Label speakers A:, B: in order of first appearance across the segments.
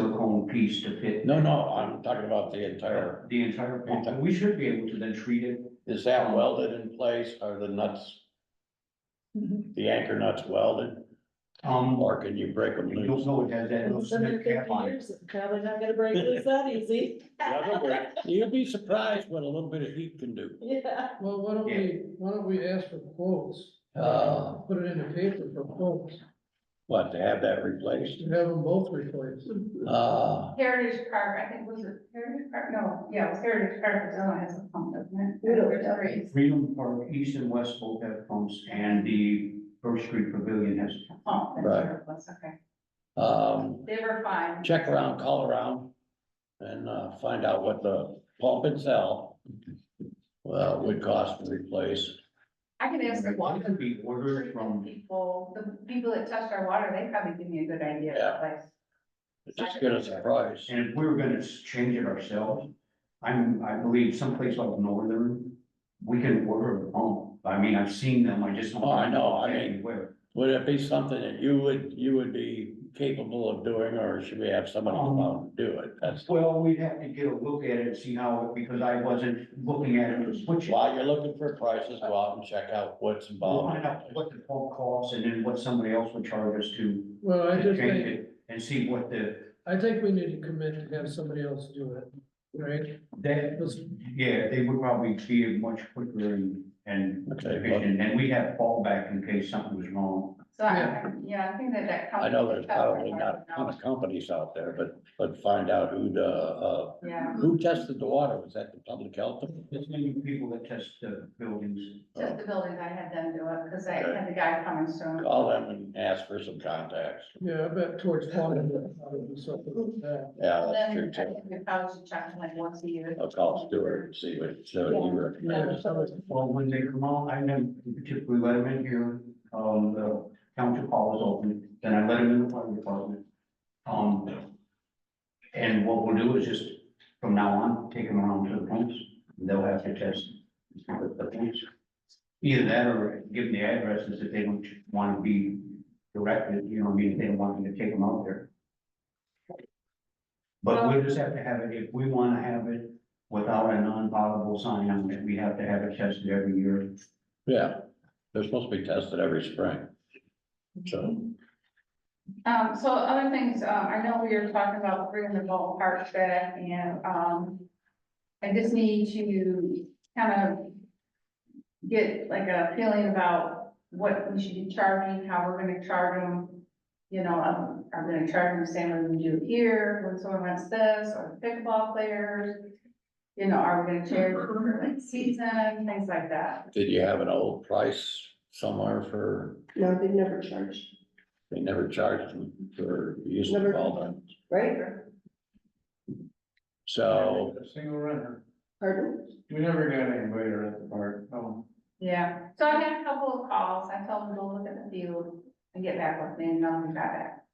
A: one piece to fit.
B: No, no, I'm talking about the entire,
A: The entire pump, and we should be able to then treat it,
B: is that welded in place? Are the nuts,
C: Mm-hmm.
B: the anchor nuts welded?
A: um,
B: Or can you break them
A: you'll
B: loose?
A: know it has that little
C: It's been
A: snip
C: there
A: cap
C: fifty
A: on it.
C: years, it's probably not gonna break loose that easy.
B: You'll be surprised what a little bit of heat can do.
C: Yeah.
D: Well, why don't we, why don't we ask for quotes,
B: Uh,
D: put it in the paper for quotes,
B: what, to have that replaced?
D: to have them both replaced.
B: Uh,
E: Heritage Park, I think was it Heritage Park? No, yeah, it was Heritage Park, it still has a pump, doesn't it?
C: Yeah.
E: There's three.
A: Freedom Park, East and West both have pumps, and the First Street Pavilion has. a pump.
E: Oh, that's
B: Right.
E: where it was, okay.
B: um,
E: They were fine.
B: check around, call around and, uh, find out what the pump itself well, would cost to replace.
E: I can ask the
A: One
E: water
A: could be ordered
E: treatment
A: from,
E: people, the people that touched our water, they probably give me a good idea
B: Yeah.
E: of the place.
B: Just get us a price.
A: and if we were gonna change it ourselves, I'm, I believe someplace like Northern, we can order a pump. I mean, I've seen them, I just don't.
B: Oh, I know, I mean-
A: Anywhere.
B: Would it be something that you would, you would be capable of doing, or should we have somebody come out and do it? That's,
A: Well, we'd have to get a look at it and see how, it because I wasn't looking at it, was switching.
B: while you're looking for prices, go out and check out what's
A: We'll
B: involved.
A: find out what the pump costs and then what somebody else would charge us to
D: Well, I
A: to
D: just
A: change
D: think,
A: it and see what the,
D: I think we need to commit to have somebody else do it, right?
A: that,
D: Let's-
A: yeah, they would probably be much quicker and, and
B: Okay,
A: efficient, and we'd have fallback in case something was wrong.
E: So I,
D: Yeah.
E: yeah, I think that that.
B: but I know there's
E: company-
B: probably not a ton of companies out there, but, but find out who the, uh,
E: Yeah,
B: who tested the water? Was that the public health?
A: There's many people that test the buildings.
E: just the buildings, I had them do it, because I
B: Okay.
E: had the guy coming soon.
B: Call them and ask for some contacts.
D: Yeah, I bet towards plumbing, we'll probably do something like that.
B: Yeah, that's true
E: Then I
B: too. Oh,
E: think we probably should check them like once a year.
B: I'll call Stuart and see what, see what he
D: Yeah,
B: recommends.
D: somebody-
A: Well, when they come out, I never typically let them in here, um, the township hall is open, then I let them in the fire department. Um, and what we'll do is just, from now on, take them around to the pumps, and they'll have to test the the pumps. Either that or give them the addresses if they don't want to be directed, you know, I mean, if they don't want me to take them out there. But we'll just have to have it, if we want to have it, without a non-potable sign on it, we have to have it tested every year.
B: Yeah, they're supposed to be tested every spring. So.
E: Um, so other things, uh, I know we were talking about bringing the ball park back and, um, I just need to kind of get like a feeling about what we should be charging, how we're gonna charge them. You know, um, are we gonna charge them the same way we do here, when someone wants this, or pickleball players? You know, are we gonna charge for like season, things like that?
B: Did you have an old price somewhere for,
F: No, they've never charged,
B: they never charged them for using the
F: Never.
B: ballpark?
F: right?
B: So,
G: Single runner.
F: Pardon?
G: We never got anybody to rent the park, no.
E: Yeah, so I had a couple of calls, I told them to look at the field and get back with me, and nothing got back,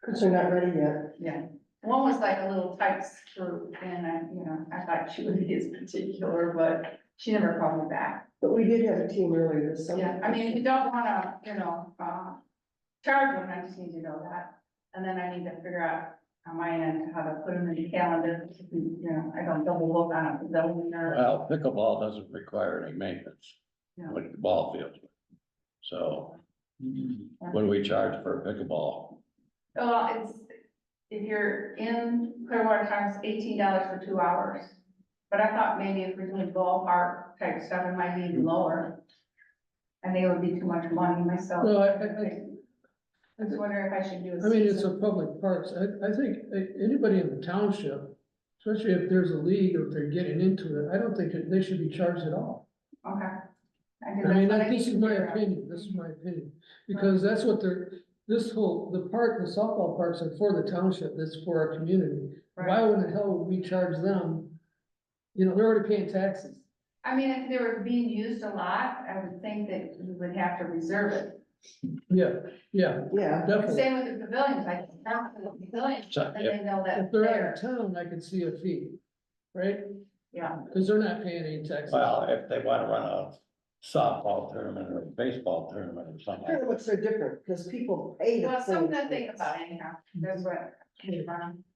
F: Because they're not ready yet.
E: yeah. One was like a little tight screw, and I, you know, I thought she would be as particular, but she never called me back.
F: But we did have a team earlier this summer.
E: Yeah, I mean, if you don't wanna, you know, uh, charge them, I just need to know that, and then I need to figure out on my end how to put them in the calendar, you know, I don't double look on it, double nerve.
B: well, pickleball doesn't require any maintenance,
E: No.
B: like the ball field. So what do we charge for a pickleball?
E: Well, it's, if you're in Clearwater Times, eighteen dollars for two hours. But I thought maybe if we're doing ballpark type stuff, it might be even lower. I think it would be too much money myself.
D: No, I, I,
E: I
D: I,
E: was wondering if I should do a.
D: I mean, it's a
E: season.
D: public parks, I, I think a- anybody in the township, especially if there's a league or if they're getting into it, I don't think that they should be charged at all.
E: Okay. think
D: I mean,
E: that's what
D: that- this is
E: need to
D: my
E: figure out.
D: opinion, this is my opinion, because that's what they're, this whole, the park, the softball parks are for the township, that's for our community. Why
E: Right.
D: would the hell would we charge them? You know, they're already paying taxes.
E: I mean, if they were being used a lot, I would think that we would have to reserve it.
D: Yeah, yeah,
F: Yeah,
D: definitely.
E: Same with the pavilions, I can count the pavilions,
B: So,
E: and they know that
D: If they're out of town, I could see a fee, right?
E: Yeah.
D: Cause they're not paying any taxes.
B: Well, if they want to run a softball tournament or a baseball tournament or
F: I
B: something,
F: don't know what's so different, because people pay. to
E: Well,
F: play.
E: something to think about anyhow, that's what. came from.